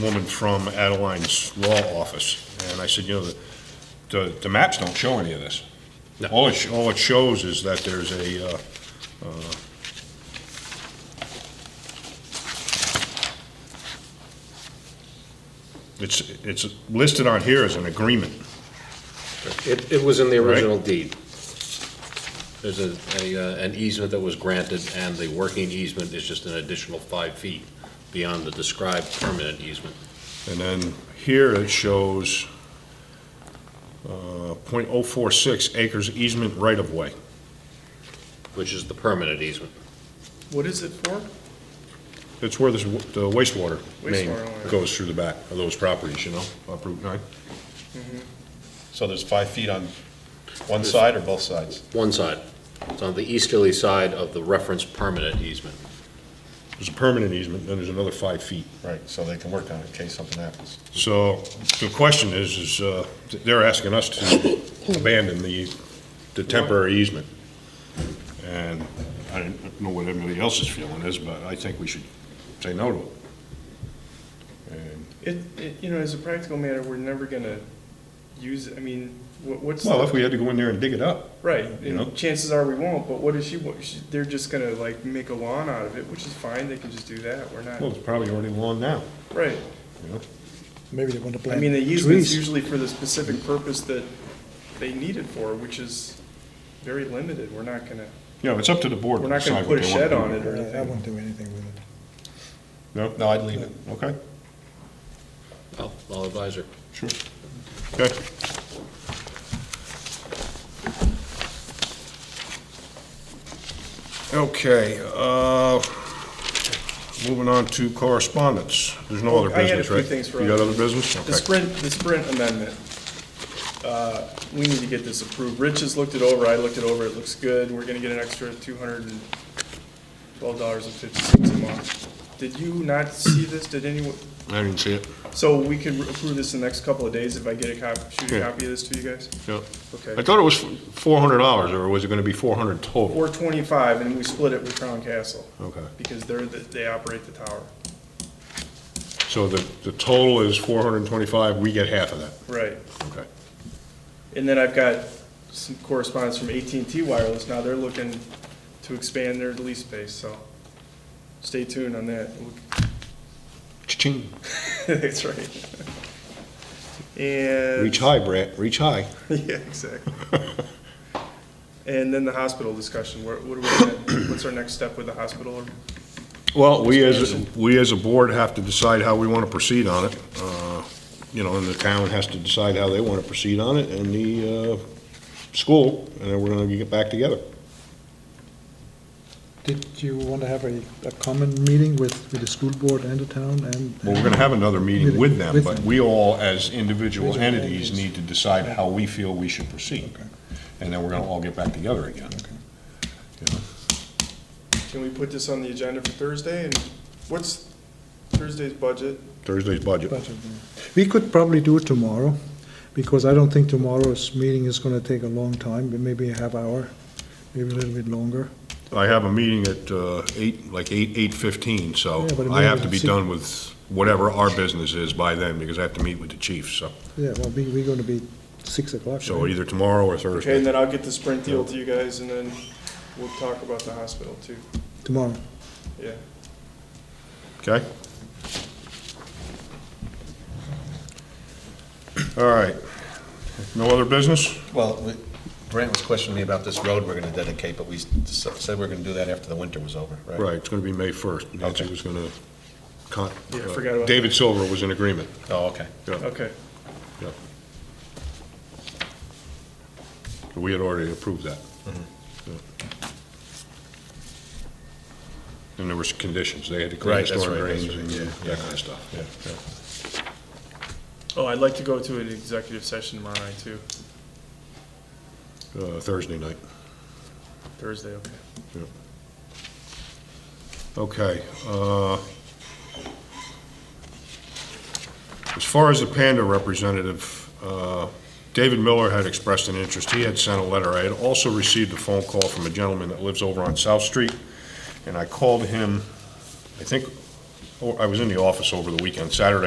woman from Adeline's law office, and I said, you know, the, the, the maps don't show any of this. No. All it, sh- all it shows is that there's a, uh, uh, it's, it's listed on here as an agreement. It, it was in the Right. original deed. There's a, a, uh, an easement that was granted, and the working easement is just an additional five feet beyond the described permanent easement. And then here it shows uh, .046 acres easement right-of-way. which is the permanent easement. What is it for? It's where this wa- the wastewater main oh, Wastewater line. goes through the back of those properties, you know, up Route 9. So there's five feet on one side or both sides? One side, it's on the easterly side of the reference permanent easement. There's a permanent easement, then there's another five feet. Right, so they can work on it in case something happens. So the question is, is uh, th- they're asking us to abandon the the temporary easement. And I don't know what everybody else's feeling is, but I think we should say no to it. And It, it, you know, as a practical matter, we're never gonna use, it. I mean, what, what's, Well, the- if we had to go in there and dig it up, right, you know. and chances are we won't, but what is she, what, she, they're just gonna like make a lawn out of it, which is fine, they can just do that, we're well, not, it's probably already lawn now, right. you know? Maybe they want to I plant mean, the easement's trees. usually for the specific purpose that they need it for, which is very limited, we're not gonna, You know, it's up to the board. we're to not gonna decide what put a they wanna shed do. on it or I anything. won't do anything with it. No, No, I'd leave it. okay, Well, I'll advise her. sure. Okay. Okay, uh, moving on to correspondence. There's no Oh, other I had a business, few right? things for You got other- other business? The Okay. Sprint, the Sprint amendment, uh, we need to get this approved. Rich has looked it over, I looked it over, it looks good. We're gonna get an extra two hundred and twelve dollars and fifty cents a month. Did you not see this? Did anyone, I didn't see it. so we could approve this in the next couple of days if I get a cop, shoot a Yeah. copy of this to you guys? Yeah. I Okay. thought it was four hundred dollars, or was it gonna be four hundred total? Four twenty-five, and we split it with Crown Castle, Okay, because they're, the- they operate the tower. so the, the total is four hundred and twenty-five, we get half of that, Right. okay. And then I've got some correspondence from at and t Wireless. Now they're looking to expand their lease space, so stay tuned on that. Cha-ching. That's right. And. Reach high, Brett, reach high. Yeah, exactly. And then the hospital discussion. What what are we, gonna- what's our next step with the hospital? Well, we as, we as a board have to decide how we want to proceed on it. Uh, You know, and the town has to decide how they want to proceed on it, and the uh, school, and then we're going to get back together. Did you want to have a, a common meeting with, with the school board and the town and? Well, we're going to have another meeting with them, With but them. we all, as individual Individual entities, entities. need to decide how we feel we should proceed. Okay. And then we're going to all get back together again. You know? Can we put this on the agenda for Thursday? And what's Thursday's budget? Thursday's budget. Budget, yeah. We could probably do it tomorrow, because I don't think tomorrow's meeting is gonna take a long time, but maybe a half hour, maybe a little bit longer. I have a meeting at uh, eight, like eight, eight-fifteen, so Yeah, but it I have to may- be done with whatever our business is by then, because I have to meet with the chief, so. Yeah, well, we, we're gonna be six o'clock. So right? either tomorrow or Okay, and Thursday. then I'll get the Sprint deal to you guys, and then we'll talk about the hospital too. Tomorrow. Yeah. Okay? All right. No other business? Well, we- Brent was questioning me about this road we're going to dedicate, but we s- said we are going to do that after the winter was over, right? Right, it's going to be May 1st. Nancy was going to con. uh, Yeah, I forgot about David Silver was in agreement. Oh, okay. Yeah, Okay. yeah. We had already approved that. Mm-hmm. Yeah. And there was conditions. They had to clean Right, that's storm right, that's drains right, and yeah, that kind of stuff. yeah. Yeah. Oh, I'd like to go to an executive session tomorrow night too, Uh, Thursday night. Thursday, okay. Okay. uh, As far as the Panda representative, uh, David Miller had expressed an interest. He had sent a letter. I had also received a phone call from a gentleman that lives over on South Street, oh, and I called him, I think, or I was in the office over the weekend, Saturday